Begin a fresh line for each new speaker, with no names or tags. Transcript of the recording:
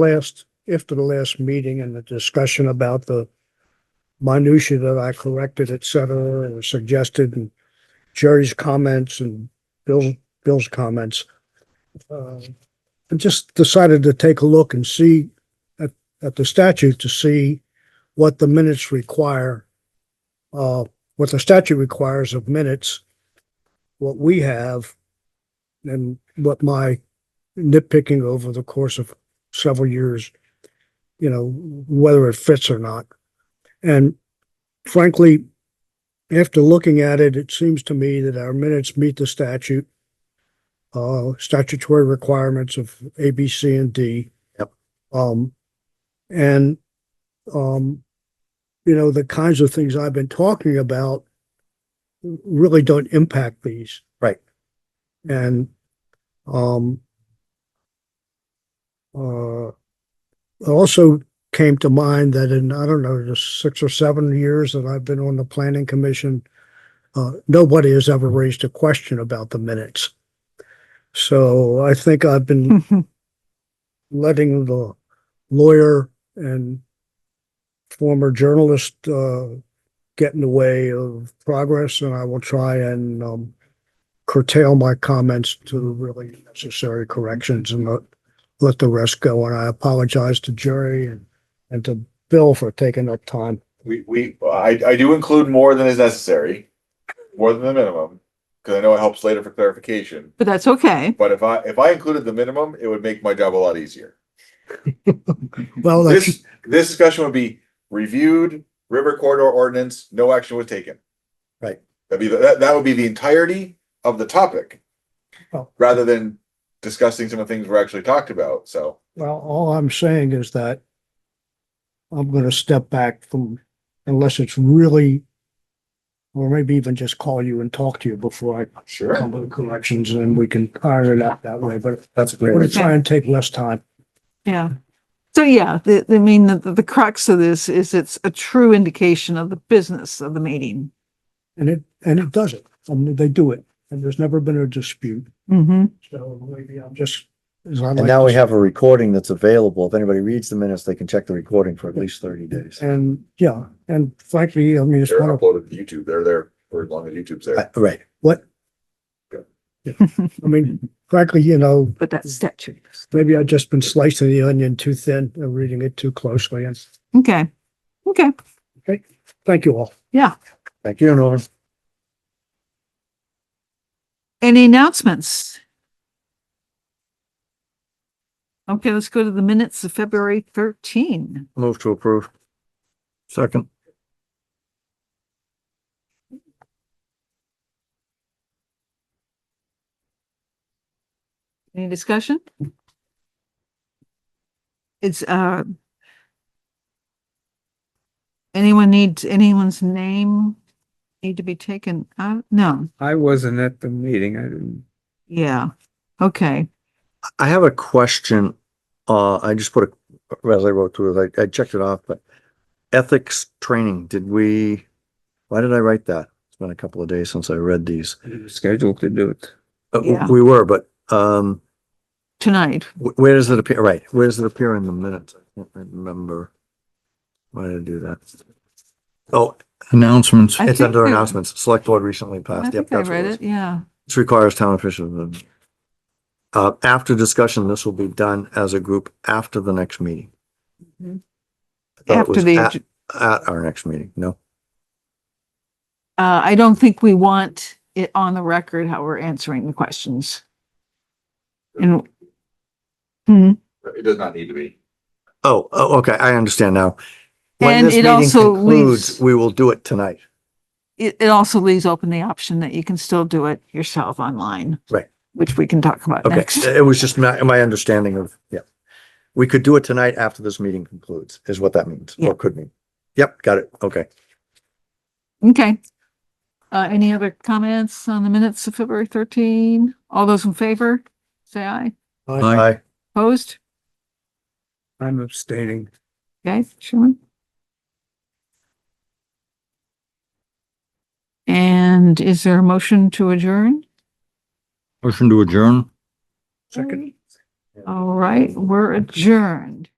last, after the last meeting and the discussion about the minutia that I corrected, et cetera, and suggested, and Jerry's comments and Bill's, Bill's comments. uh, I just decided to take a look and see at, at the statute to see what the minutes require, uh, what the statute requires of minutes, what we have, and what my nitpicking over the course of several years, you know, whether it fits or not. And frankly, after looking at it, it seems to me that our minutes meet the statute, uh, statutory requirements of A, B, C, and D.
Yep.
Um, and, um, you know, the kinds of things I've been talking about really don't impact these.
Right.
And, um, uh, it also came to mind that in, I don't know, the six or seven years that I've been on the planning commission, uh, nobody has ever raised a question about the minutes. So I think I've been letting the lawyer and former journalist, uh, get in the way of progress and I will try and, um, curtail my comments to really necessary corrections and not let the rest go. And I apologize to Jerry and, and to Bill for taking up time.
We, we, I, I do include more than is necessary, more than the minimum, because I know it helps later for clarification.
But that's okay.
But if I, if I included the minimum, it would make my job a lot easier.
Well, that's,
This, this discussion would be reviewed, river corridor ordinance, no action was taken.
Right.
That'd be, the- that, that would be the entirety of the topic.
Oh.
Rather than discussing some of the things we're actually talked about, so.
well, all I'm saying is that I'm going to step back from, unless it's really, or maybe even just call you and talk to you before I
Sure.
come with corrections and we can iron it out that way. But
That's a
I'm going to
great.
try and take less time.
Yeah. So yeah, the, the- I mean, the, the crux of this is it's a true indication of the business of the meeting.
And it, and it does it. I mean, they do it. And there's never been a dispute.
Mm-hmm.
So maybe I'm just, as I like.
And now
to
we
say-
have a recording that's available. If anybody reads the minutes, they can check the recording for at least thirty days.
And yeah, and frankly, I mean, it's
They're
one of,
uploaded to YouTube, they're there for as long as YouTube's
I-
there.
Uh, Right,
what? I mean, frankly, you know,
But that's statute.
maybe I've just been slicing the onion too thin and reading it too closely. And
Okay. Okay.
thank you all.
thank you, Norm.
Any announcements? Okay, let's go to the minutes of February thirteen.
Move to approve. Second.
Any discussion? It's, uh, anyone needs, anyone's name need to be taken out? No,
I wasn't at the meeting. I didn't.
yeah, okay,
I have a question. Uh, I just put a, as I wrote through it, I, I checked it off, but ethics training, did we? Why did I write that? It's been a couple of days since I read these.
I was scheduled to do it.
Uh, w-
Yeah.
We were, but, um,
tonight,
Wh- Where does it appear? Right, where does it appear in the minutes? I can't remember. Why did I do that? Oh, announcements.
I
It's
think
under
I-
announcements. Select board recently
I
passed. Yep,
think I
that's
read
what it was.
it, yeah,
This requires town officials. Uh, after discussion, this will be done as a group after the next meeting.
Mhm.
I thought it
After
was
the
At
ag-
at our next meeting, no?
uh, I don't think we want it on the record how we're answering the questions. And, Hmm.
It does not need to be.
Oh, oh, okay, I understand now. When
And
this
it
meeting
also
concludes,
leaves-
We will do it tonight.
it, it also leaves open the option that you can still do it yourself online.
Right.
Which we can talk about
Okay,
next.
it was just my, my understanding of, yeah. We could do it tonight after this meeting concludes, is what that means,
Yeah.
or could mean. Yep, got it, okay.
Okay. Uh, any other comments on the minutes of February thirteen? All those in favor, say aye.
I
Aye.
Opposed?
I'm abstaining.
Okay, Sherman? And is there a motion to adjourn?
Motion to adjourn?
Second.
All right, we're adjourned.